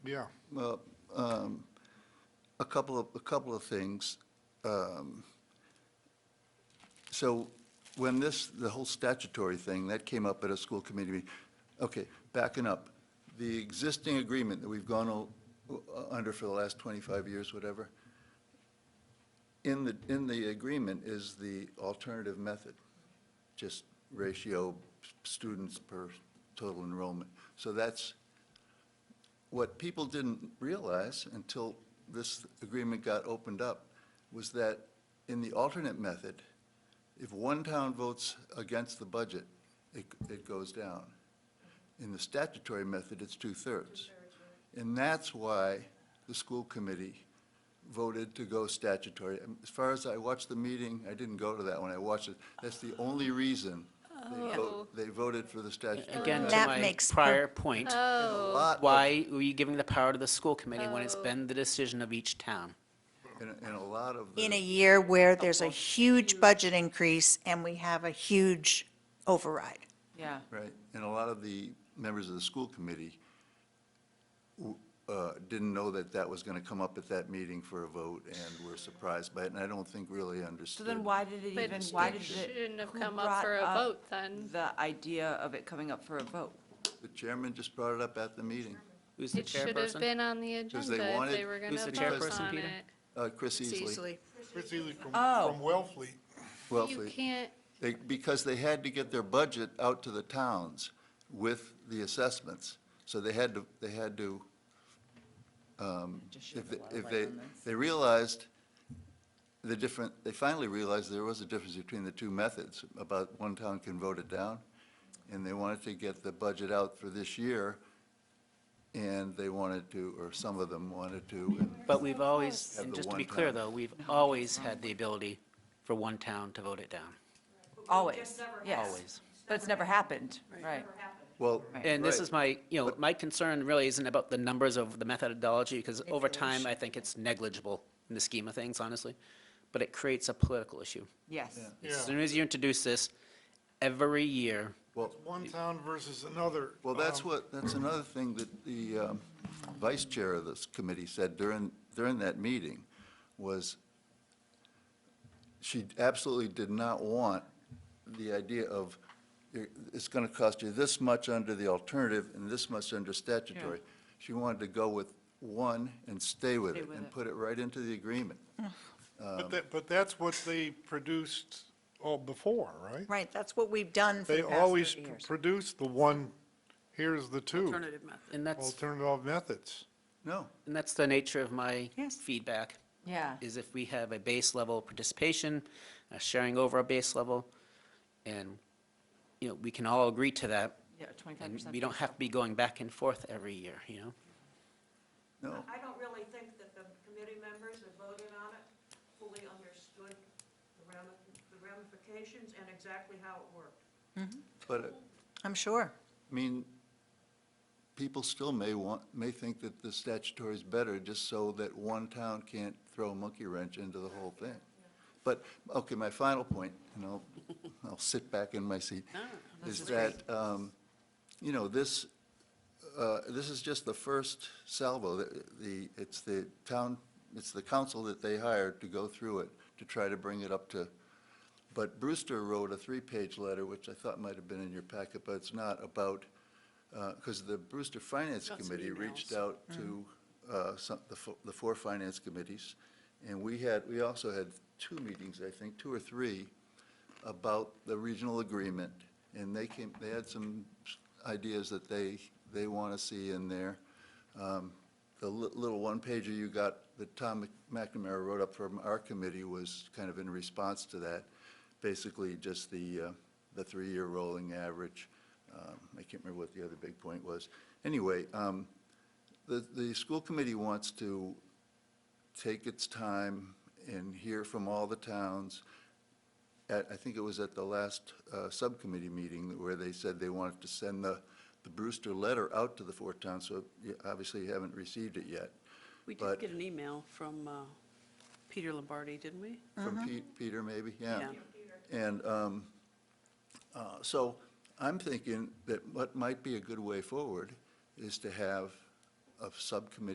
Yeah, Uh, um, A couple of, a couple of things. Um, So when this, the whole statutory thing, that came up at a school committee meeting. Okay, backing up, the existing agreement that we've gone o- uh, under for the last 25 years, whatever, in the, in the agreement is the alternative method, just ratio students per total enrollment. So that's what people didn't realize until this agreement got opened up was that in the alternate method, if one town votes against the budget, it, it goes down. In the statutory method, it's two-thirds. And that's why the school committee voted to go statutory. And As far as I watched the meeting, I didn't go to that one, I watched it. That's the only reason they Oh. vote, they voted for the statutory. Again, to That my makes per- prior point, Oh, Lot of- why were you giving the power to the school committee when it's Oh. been the decision of each town? And, and a lot of the. in a year where there's a huge budget increase and we have a huge override. Yeah, Right, and a lot of the members of the school committee w- uh, didn't know that that was going to come up at that meeting for a vote, and were surprised by it, and I don't think really so understood. then why did it But even, why it did it? shouldn't have who come up brought for a vote then. The idea of it coming up for a vote. The chairman just brought it up at the meeting. Who's the It should have chairperson? been on the Because they agenda if wanted- they were going Who's to the vote chairperson, on Peter? it. Uh, Chris Easley, Chris Ely from, Oh. from Wellfleet. You Wellfleet, can't, They- because they had to get their budget out to the towns with the assessments. So they had to, they had to, um, Just shed if, a they- lot of if light they, on this. they realized the different, they finally realized there was a difference between the two methods, about one town can vote it down, and they wanted to get the budget out for this year, and they wanted to, or some of them wanted to, and But we've always, Have and the just to one be clear town. though, we've always had the ability for one town to vote it down, Always, yes. always. But it's never happened, right? well. And this right. is my, you know, my concern really isn't about the numbers of the methodology, because over time, I think it's negligible in the scheme of things, honestly. But it creates a political issue. Yes. Yeah. As soon as you introduce this, every year, Well, One town versus another. Well, that's um, what, that's another thing that the um, vice chair of this committee said during, during that meeting, was she absolutely did not want the idea of, it's going to cost you this much under the alternative and this much under statutory. She wanted to go with one and stay with Stay it with and it. put it right into the agreement. But um, that, but that's what they produced all before, right? Right, that's what we've done for They the past always 30 years. produce the one, here's the two, alternative method. And that's, alternative methods. No, and that's the nature of my Yes. feedback. Yeah. Is if we have a base level of participation, a sharing over a base level, and, you know, we can all agree to that. Yeah, twenty-five And percent. we don't have to be going back and forth every year, you know? no. I don't really think that the committee members that voted on it fully understood the rami- the ramifications and exactly how it worked. But it- I'm sure. I mean, people still may want, may think that the statutory is better just so that one town can't throw a monkey wrench into the whole thing. But, okay, my final point, and I'll, I'll sit back in my seat, is that, um, you know, this, uh, this is just the first salvo. The- The, it's the town, it's the council that they hired to go through it, to try to bring it up to, but Brewster wrote a three-page letter, which I thought might have been in your packet, but it's not, about, because the Brewster Finance Committee reached out to uh, some, the fo- the four finance committees, and we had, we also had two meetings, I think, two or three, about the regional agreement, and they came, they had some ideas that they, they want to see in there. Um, The li- little one-pager you got that Tom McNamara wrote up from our committee was kind of in response to that, basically just the, uh, the three-year rolling average. Um, I can't remember what the other big point was. Anyway, um, the, the school committee wants to take its time and hear from all the towns. At, I think it was at the last uh, subcommittee meeting where they said they wanted to send the, the Brewster letter out to the four towns, so you obviously you haven't received it yet. We did But- get an email from uh, Peter Lombardi, didn't we? From Pete- Peter, maybe, yeah. And um, uh, so I'm thinking that what might be a good way forward is to have of subcommittee